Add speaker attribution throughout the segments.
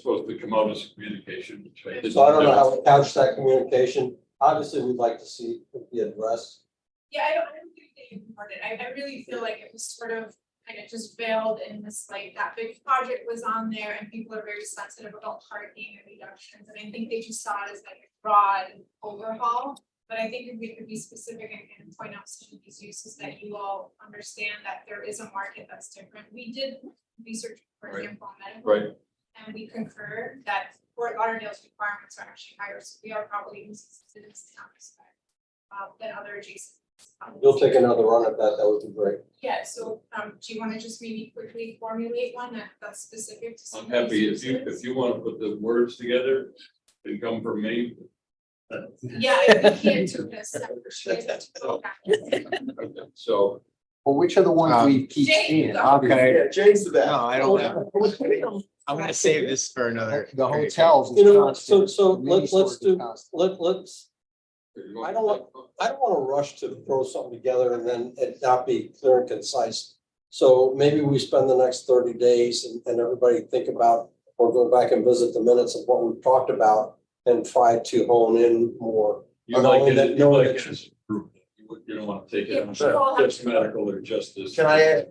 Speaker 1: supposed to come out as communication between.
Speaker 2: So I don't know how to couch that communication. Obviously, we'd like to see it be addressed.
Speaker 3: Yeah, I don't, I don't think they ignored it. I, I really feel like it was sort of, kind of just veiled in this, like, that big project was on there and people are very sensitive about parking and reductions. And I think they just saw it as like a broad overhaul. But I think if we could be specific and kind of point out some of these uses that you all understand that there is a market that's different. We did research, for
Speaker 1: Right.
Speaker 3: example, on medical
Speaker 1: Right,
Speaker 3: and we concur that Fort Lauderdale's requirements are actually higher, so we are probably inconsistent in some respect. Uh, than other adjacent. municipalities.
Speaker 2: You'll take another run at that, that would be great.
Speaker 3: Yeah, so, um, do you wanna just maybe quickly formulate one that, that's specific to some
Speaker 1: I'm
Speaker 3: of these
Speaker 1: happy if you,
Speaker 3: uses?
Speaker 1: if you want to put the words together and come from me.
Speaker 3: Yeah, if we can't do this, I appreciate it.
Speaker 1: Oh. So,
Speaker 4: Well, which are the ones
Speaker 5: Uh,
Speaker 4: we keep
Speaker 3: Jane,
Speaker 4: seeing,
Speaker 3: the-
Speaker 4: obviously?
Speaker 5: Okay.
Speaker 4: James to
Speaker 5: that. No, I don't know. I'm gonna save this for another.
Speaker 4: The hotels. is
Speaker 2: You know, so,
Speaker 4: constant.
Speaker 2: so
Speaker 4: The mini
Speaker 2: let's, let's
Speaker 4: stores
Speaker 2: do,
Speaker 4: is constant.
Speaker 2: let, let's, I don't want- I don't want to rush to throw something together and then it not be clear and concise. So maybe we spend the next thirty days and, and everybody think about or go back and visit the minutes of what we've talked about and try to hone in more.
Speaker 1: You
Speaker 2: I don't
Speaker 1: like
Speaker 2: want
Speaker 1: it,
Speaker 2: that-
Speaker 1: you
Speaker 2: no
Speaker 1: like
Speaker 2: one
Speaker 1: it as group. You would- you don't want to take it on
Speaker 3: Yeah, sure.
Speaker 1: just medical or just this.
Speaker 5: Can I add?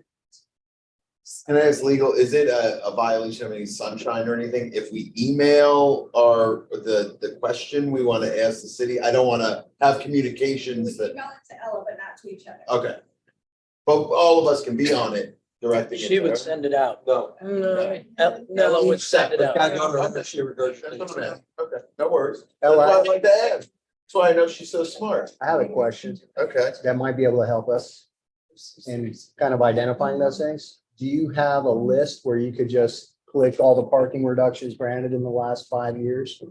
Speaker 5: Can I ask legal, is it a, a violation of any sunshine or anything? If we email our, the, the question we wanna ask the city, I don't wanna have
Speaker 3: We
Speaker 5: communications
Speaker 3: email it
Speaker 5: that,
Speaker 3: to Ella, but not to each other.
Speaker 5: okay. But all of us can be on it, directing it.
Speaker 6: She would send it out.
Speaker 2: No.
Speaker 5: No.
Speaker 6: El- Ella would send it
Speaker 2: But
Speaker 6: out.
Speaker 2: God, God, I hope she
Speaker 5: That's
Speaker 2: regurgitates
Speaker 5: what I'm
Speaker 2: it.
Speaker 5: asking. Okay, no worries. That's
Speaker 4: Ella,
Speaker 5: why I like to ask. That's why I know she's so smart.
Speaker 4: I have a question
Speaker 5: Okay.
Speaker 4: that might be able to help us in kind of identifying those things. Do you have a list where you could just click all the parking reductions granted in the last five years?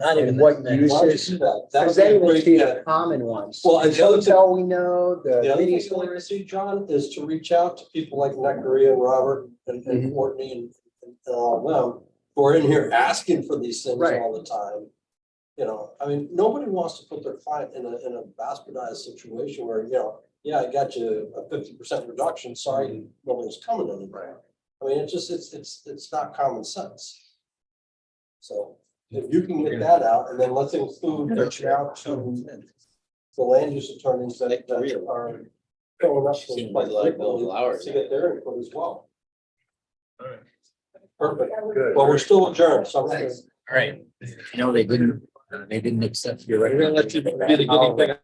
Speaker 6: Not even
Speaker 4: And what
Speaker 6: that many.
Speaker 4: you
Speaker 2: Why would you do that? That
Speaker 4: Because
Speaker 2: would be
Speaker 4: they
Speaker 2: a
Speaker 4: would
Speaker 2: great-
Speaker 4: be
Speaker 2: yeah.
Speaker 4: the common ones.
Speaker 2: Well, and the other thing-
Speaker 4: Hotel we know,
Speaker 2: The
Speaker 4: the
Speaker 2: other
Speaker 4: mini
Speaker 2: thing I'd like to
Speaker 4: stores.
Speaker 2: see, John, is to reach out to people like Necker and Robert and and Courtney and and all of them. Who are in here asking for these things
Speaker 4: Right.
Speaker 2: all the time. You know, I mean, nobody wants to put their client in a in a bastardized situation where, you know, yeah, I got you a fifty percent reduction, sorry, nobody's coming anymore. I mean, it's just, it's it's it's not common sense. So if you can get that out and then let's include reaching out to the land use attorneys that that are. filling up those
Speaker 6: Seems like
Speaker 2: places
Speaker 6: Bill Lauer.
Speaker 2: To get their input as well.
Speaker 1: All right.
Speaker 2: Perfect.
Speaker 5: Good.
Speaker 2: Well, we're still adjourned, so. I'm gonna-
Speaker 5: Thanks.
Speaker 6: All right. No, they didn't, they didn't accept. You're
Speaker 5: We're gonna
Speaker 6: let you be the guinea pig.